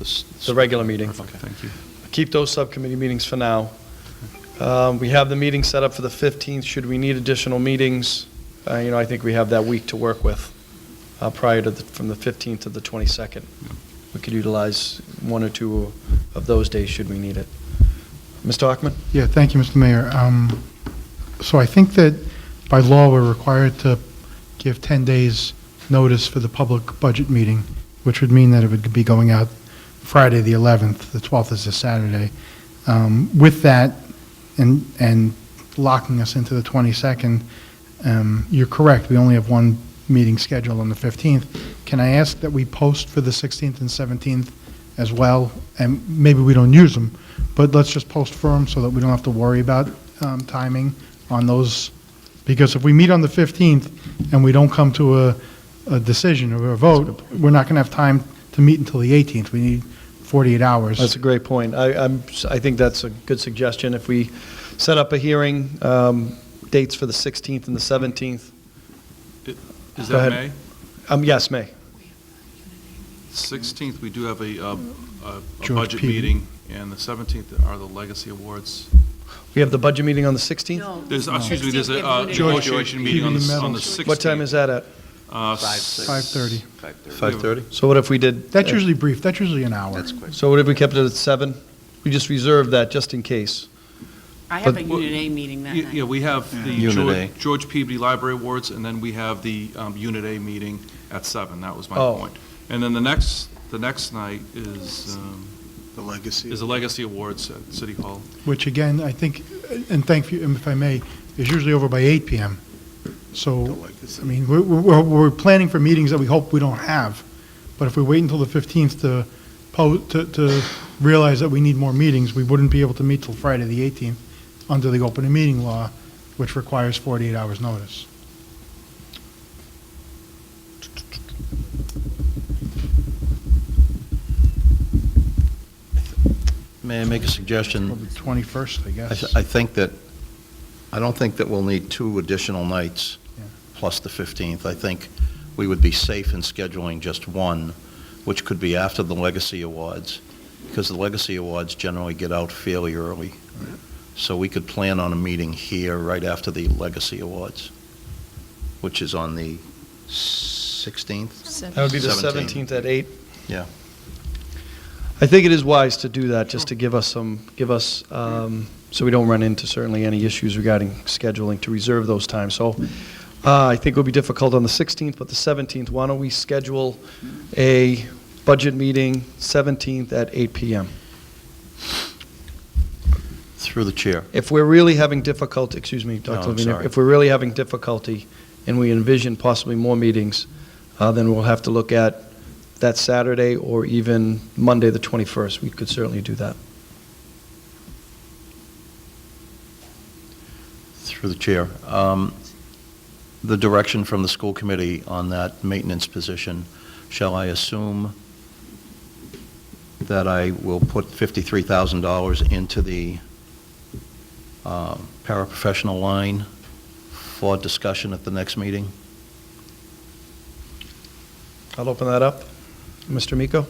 s- the regular meeting. Okay, thank you. Keep those subcommittee meetings for now. Um, We have the meeting set up for the 15th. Should we need additional meetings, uh, you know, I think we have that week to work with uh, prior to, the- from the 15th to the 22nd. We could utilize one or two of those days should we need it. Mr. Hockman? Yeah, thank you, Mr. Mayor. Um, So I think that by law, we're required to give 10 days' notice for the public budget meeting, which would mean that it would be going out Friday, the 11th, the 12th is a Saturday. Um, With that, and, and locking us into the 22nd, um, you're correct, we only have one meeting scheduled on the 15th. Can I ask that we post for the 16th and 17th as well? And maybe we don't use them, but let's just post for them so that we don't have to worry about um, timing on those. Because if we meet on the 15th and we don't come to a, a decision or a vote, we're not going to have time to meet until the 18th. We need 48 hours. That's a great point. I, I'm, I think that's a good suggestion. If we set up a hearing, um, dates for the 16th and the 17th, Is Go that May? ahead. um, yes, May. 16th, we do have a, uh, a- a George budget P. meeting, and the 17th are the legacy awards. We have the budget meeting on the 16th? No. There's, excuse me, there's a uh, Sixteenth, George negotiation P. meeting on the, Medals. on the 16th. What time is that at? Uh, Five, s- six. 5:30. Five thirty? So what if we did? uh, That's usually brief, that's usually an hour. That's quick. So what if we kept it at seven? We just reserved that just in case. I have a But- Unit A meeting that Yeah, yeah, night. we have the Unit George- A. George Peabody Library Awards, and then we have the um, Unit A meeting at seven. that was my Oh. point. And then the next, the next night is, um, The legacy. is the Legacy Awards at City Hall. Which again, I think, and thank you, if I may, is usually over by 8 PM. So, I mean, we're, we're, we're planning for meetings that we hope we don't have, but if we wait until the 15th to po, to, to realize that we need more meetings, we wouldn't be able to meet till Friday, the 18th, under the open meeting law, which requires 48 hours' notice. May I make a suggestion? Probably 21st, I Mm. I guess. th- I think that, I don't think that we'll need two additional nights Yeah. plus the 15th. I think we would be safe in scheduling just one, which could be after the Legacy Awards, because the Legacy Awards generally get out fairly early. So we could plan on a meeting here right after the Legacy Awards, which is on the 16th? That would be the 17th. 17th at eight. Yeah. I think it is wise to do that, just to give us some, give us, um, so we don't run into certainly any issues regarding scheduling to reserve those times. So uh, I think it would be difficult on the 16th, but the 17th, why don't we schedule a budget meeting 17th at eight PM? Through the chair. If we're really having difficulty, excuse me, No, Dr. I'm Levine, sorry. if we're really having difficulty and we envision possibly more meetings, uh, then we'll have to look at that Saturday or even Monday, the 21st. We could certainly do that. Through the chair, um, the direction from the school committee on that maintenance position, shall I assume that I will put $53,000 into the uh, paraprofessional line for discussion at the next meeting? I'll open that up. Mr. Miko?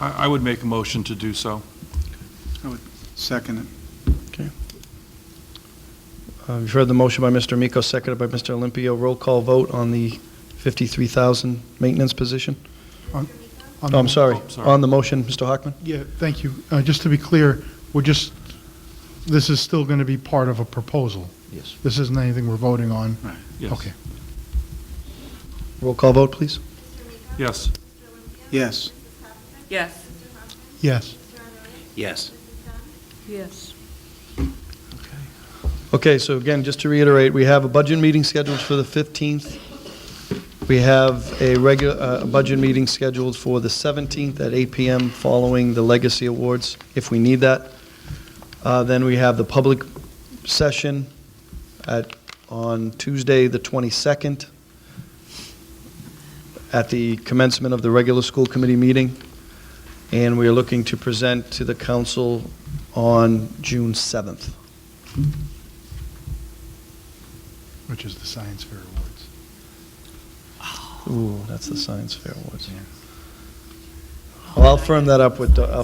I, I would make a motion to do so. Second it. Uh, You've heard the motion by Mr. Miko, seconded by Mr. Olympio. Roll call vote on the 53,000 maintenance position? On No, I'm the- sorry. Oh, sorry. On the motion, Mr. Hockman? Yeah, thank you. Uh, Just to be clear, we're just, this is still going to be part of a proposal. Yes. This isn't anything we're voting on. Yes. Okay. Roll call vote, please. Yes. Yes. Yes. Yes. Yes. Yes. Okay, so again, just to reiterate, we have a budget meeting scheduled for the 15th. We have a regular, a budget meeting scheduled for the 17th at 8 PM following the Legacy Awards, if we need that. Uh, Then we have the public session at, on Tuesday, the 22nd, at the commencement of the regular school committee meeting. And we are looking to present to the council on June 7th. Which is the Science Fair Awards. Ooh, that's the Science Fair Awards. Well, I'll firm that up with, uh, I'll